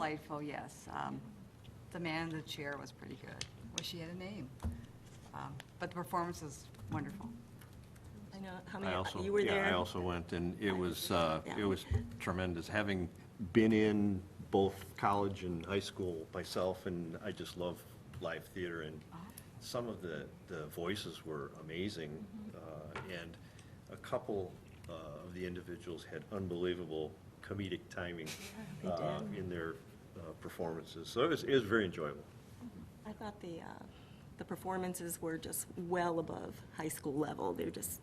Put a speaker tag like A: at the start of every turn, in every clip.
A: Delightful, yes. Um, The man in the chair was pretty good. Wish he had a name. Um, But the performance was wonderful.
B: I know, how
C: I
B: many,
C: also,
B: you were there?
C: yeah, I also went, and it was, uh,
B: Yeah.
C: it was tremendous, having been in both college and high school myself, and I just love live theater, and some of the, the voices were amazing,
B: Mm-hmm.
C: uh, and a couple uh, of the individuals had unbelievable comedic timing
B: they
C: uh,
B: did.
C: in their uh, performances, so it was, it was very enjoyable.
B: I thought the, uh, the performances were just well above high school level. They were just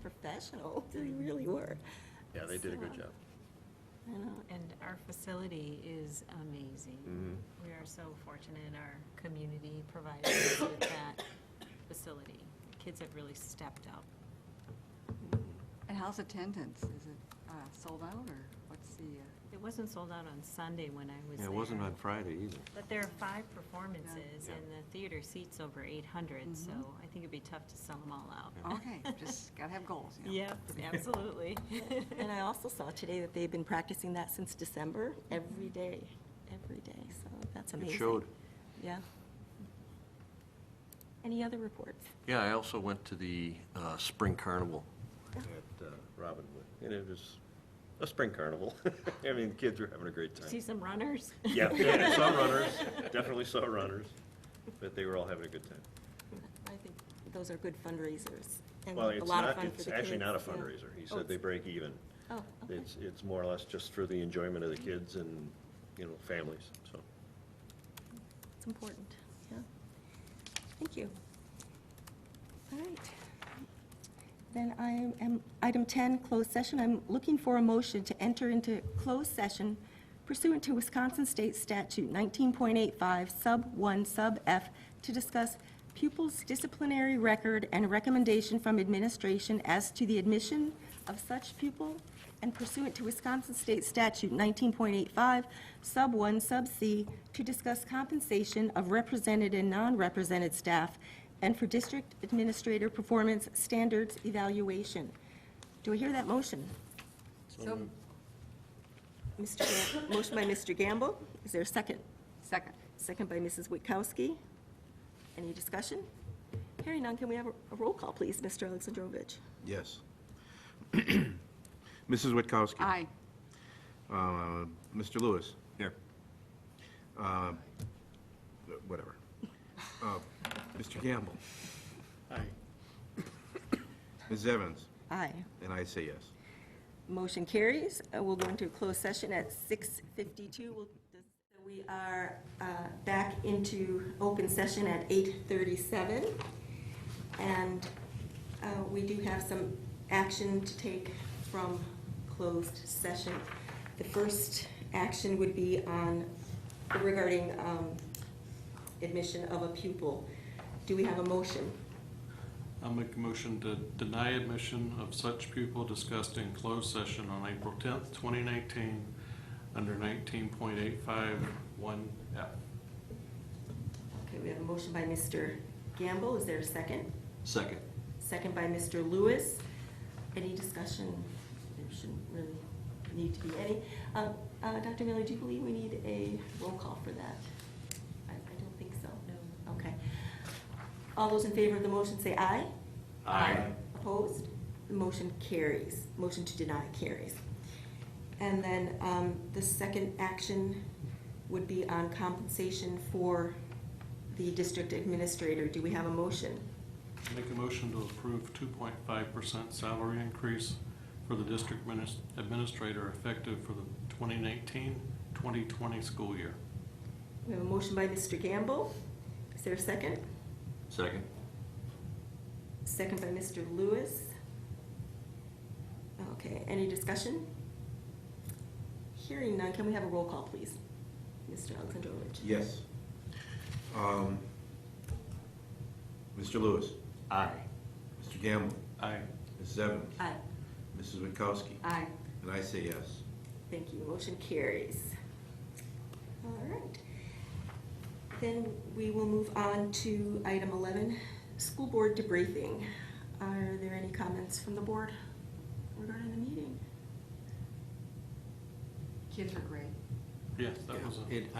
B: professional, they really were.
C: Yeah, they did a good
B: So,
C: job.
B: I know.
D: And our facility is amazing.
C: Mm-hmm.
D: We are so fortunate, our community provided us with that facility. Kids have really stepped up.
A: And how's attendance? Is it uh, sold out or what's the, uh,
D: It wasn't sold out on Sunday when I was
C: Yeah,
D: there.
C: it wasn't on Friday either.
D: But there are five performances,
C: Yeah.
D: and the theater seats over 800, so I think it'd be tough to sell them all out.
A: Mm-hmm. okay, just gotta have goals, you know?
D: Yep, absolutely.
B: And I also saw today that they've been practicing that since December, every day, every day, so that's amazing.
C: showed.
B: Yeah. Any other reports?
C: Yeah, I also went to the uh, Spring Carnival at uh, Robinwood, and it was a spring carnival. I mean, the kids were having a great
D: See
C: time.
D: some runners?
C: Yeah, yeah, saw runners, definitely saw runners, but they were all having a good time.
B: I think those are good fundraisers and
C: Well,
B: a
C: it's
B: lot of
C: not,
B: fun for the
C: it's actually not a
B: kids, yeah.
C: fundraiser. He
B: Oh,
C: said they
B: it's-
C: break even.
B: Oh, okay.
C: It's, it's more or less just for the enjoyment of the kids and, you know, families, so.
B: It's important, yeah. Thank you. All right. Then I am, item 10, closed session. I'm looking for a motion to enter into closed session pursuant to Wisconsin State Statute 19.85, Sub 1, Sub F, to discuss pupils' disciplinary record and recommendation from administration as to the admission of such pupil, and pursuant to Wisconsin State Statute 19.85, Sub 1, Sub C, to discuss compensation of represented and non-represented staff, and for district administrator performance standards evaluation. Do I hear that motion?
A: So,
B: Mr. Gam- Motion by Mr. Gamble. Is there a second?
A: second.
B: Second by Mrs. Witkowski. Any discussion? Hearing none, can we have a a roll call, please, Mr. Alexandrovich?
E: Yes. Mrs. Witkowski.
A: Aye.
E: Uh, Mr. Lewis. Here. Whatever. Uh, Mr. Gamble. Aye. Ms. Evans,
B: Aye.
E: and I say yes.
B: Motion carries. Uh, We'll go into a closed session at 6:52. We'll- We are uh, back into open session at 8:37. And uh, we do have some action to take from closed session. The first action would be on regarding um, admission of a pupil. Do we have a motion?
F: I'll make a motion to deny admission of such pupil discussed in closed session on April tenth, twenty nineteen, under nineteen point eight five one F.
B: Okay, we have a motion by Mr. Gamble. Is there a second?
F: Second.
B: Second by Mr. Lewis. Any discussion? There shouldn't really need to be any. Uh, uh, Dr. Miller, do you believe we need a roll call for that? I I don't think so. No. Okay. All those in favor of the motion say aye.
F: Aye.
B: Opposed? The motion carries. Motion to deny carries. And then um, the second action would be on compensation for the district administrator. Do we have a motion?
F: Make a motion to approve two point five percent salary increase for the district minis- administrator effective for the 2019-2020 school year.
B: We have a motion by Mr. Gamble. Is there a second?
F: Second.
B: Second by Mr. Lewis. Okay, any discussion? Hearing none, can we have a roll call, please? Mr. Alexandrovich?
E: Yes. Um, Mr. Lewis.
F: Aye.
E: Mr. Gamble.
F: Aye.
E: Ms. Evans.
B: Aye.
E: Mrs. Witkowski.
B: Aye.
E: And I say yes.
B: Thank you, motion carries. All right. Then we will move on to item 11, school board debriefing. Are there any comments from the board regarding the meeting?
A: Kids are great.
G: Yes, that was a.
F: It,